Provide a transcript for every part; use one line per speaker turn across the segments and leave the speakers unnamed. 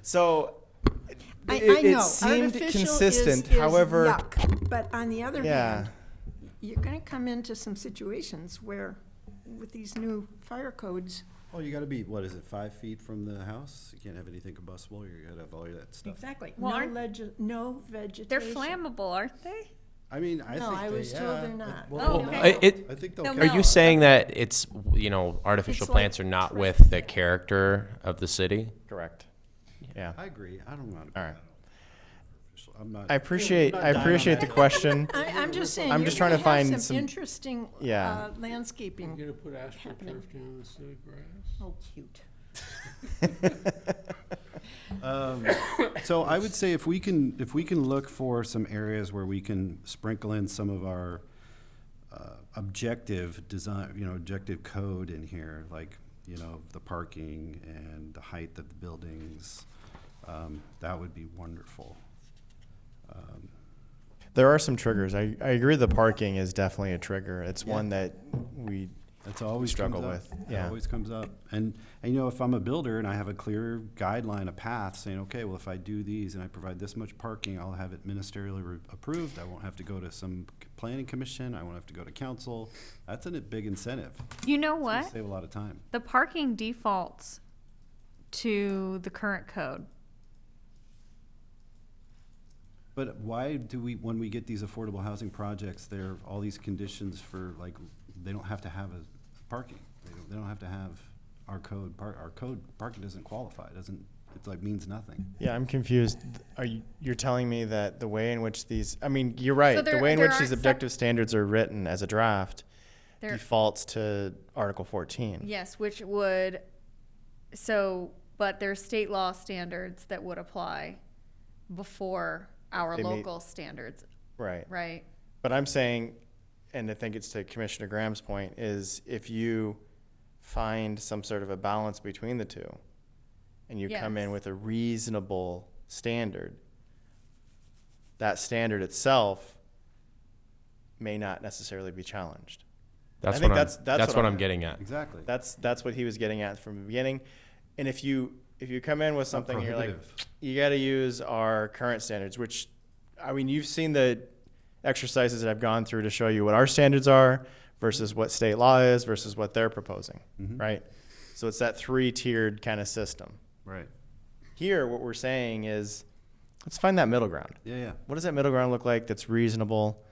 So
I,
it,
I know.
it seemed
Artificial is-
consistent.
is
However,
yuck. But on the other
yeah,
hand, you're going to come into some situations where, with these new fire codes,
Oh, you gotta be, what is it, five feet from the house? You can't have anything combustible, you gotta have all that stuff.
exactly,
Well,
no
aren't-
legi- no vegetation.
They're flammable, aren't they?
I mean, I think
No, I
they-
was told
yeah,
they're
I-
not.
well,
Oh,
no.
okay.
I- it-
I think they'll.
No,
catch
are
no.
you saying that it's you know artificial
It's like
plants are not
trash.
with the character of the city?
correct. Yeah.
I agree. I don't want.
All right.
I'm not.
I appreciate I
Not dying on
appreciate the
that.
question.
I, I'm just saying,
I'm
you're
just trying
going
to
to have
find
some
some-
interesting
Yeah.
uh,
You're
landscaping.
gonna put
happening.
astroturf down instead of grass?
Oh, cute.
Um, So I would say if we can, if we can look for some areas where we can sprinkle in some of our uh, objective design, you know, objective code in here, like, you know, the parking and the height of the buildings, um, that would be wonderful.
There are some triggers. I, I agree the parking is definitely a trigger. It's one that we
That's always
struggle
comes
with,
Up. It
yeah.
always comes up. And and you know, if I'm a builder and I have a clear guideline, a path, saying, okay, well, if I do these and I provide this much parking, I'll have it ministerially re- approved. I won't have to go to some c- planning commission. I won't have to go to council. That's a big incentive.
You know
It's gonna
what?
Save a lot of time.
The parking defaults to the current code.
But why do we, when we get these affordable housing projects, there are all these conditions for like, they don't have to have a parking. They don't, they don't have to have our code. Par- our code parking doesn't qualify. It doesn't. It's like means nothing.
yeah, I'm confused. Are you you're telling me that the way in which these I mean, you're right. the
there-
way in
there
which these
aren't sep-
objective standards are written as a draft
There-
defaults to Article 14.
Yes, which would, so, but there's state law standards that would apply before our
They may-
local standards,
Right.
right?
But I'm saying, and I think it's to Commissioner Graham's point, is if you find some sort of a balance between the two and you come in
Yes.
with a reasonable standard, that standard itself may not necessarily be challenged.
That's
I think
what
that's-
I'm,
that's what
what
I'm-
I'm getting at.
Exactly.
That's that's what he was getting at from the beginning. And if you if you come in with something you're like
prohibitive.
you got to use our current standards, which I mean you've seen the exercises that I've gone through to show you what our standards are versus what state law is versus what they're proposing, right? So it's that three-tiered kind of system.
Right.
Here what we're saying is let's find that middle ground.
Yeah, yeah.
What does that middle ground look like that's reasonable?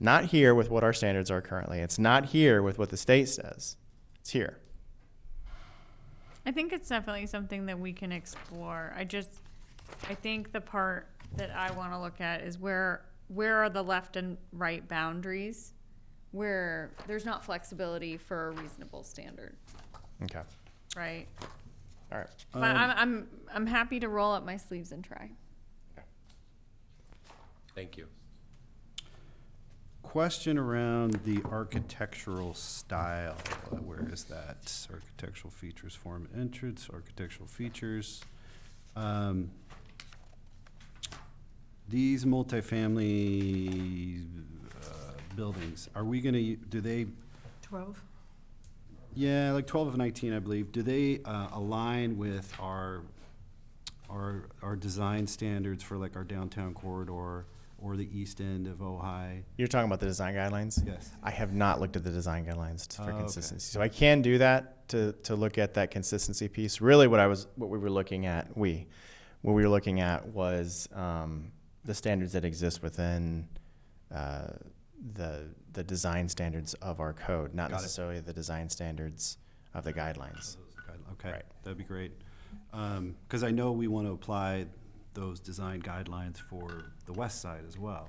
Not here with what our standards are currently. It's not here with what the state says. It's here.
I think it's definitely something that we can explore. I just, I think the part that I want to look at is where, where are the left and right boundaries?
Where there's not flexibility for a reasonable standard,
Okay.
right?
All right.
But I'm, I'm, I'm happy to roll up my sleeves and try.
Thank you.
Question around the architectural style. Uh, Where is that? Architectural features, form, and entrance, architectural features. Um, These multifamily uh, buildings, are we gonna, do they,
Twelve?
yeah, like twelve of nineteen, I believe, do they uh, align with our, our, our design standards for like our downtown corridor or the east end of Ojai?
You're talking about the design guidelines?
Yes.
I have not looked at the design guidelines t-
Oh,
for
okay.
consistency. So I can do that to, to look at that consistency piece. Really what I was, what we were looking at, we, what we were looking at was, um, the standards that exist within, uh, the, the design standards of our code, not
Got it.
necessarily the design standards of the guidelines.
Guide- Okay,
Right.
that'd be great. Because I know we want to apply those design guidelines for the west side as well,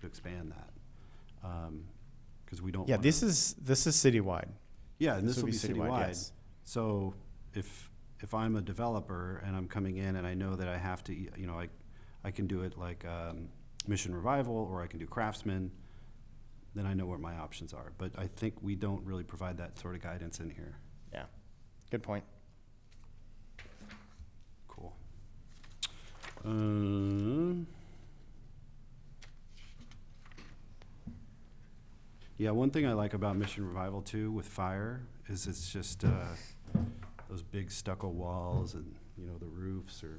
to expand that. Because we don't.
Yeah,
wanna-
this is, this is citywide.
Yeah, and
this
this will
would
be
be citywide,
citywide.
yes.
So if, if I'm a developer and I'm coming in and I know that I have to, you know, I, I can do it like um, Mission Revival or I can do Craftsman, then I know what my options are. But I think we don't really provide that sort of guidance in here.
Yeah. Good point.
Cool. Um, yeah, one thing I like about Mission Revival too with fire is it's just uh, those big stucco walls and you know the roofs are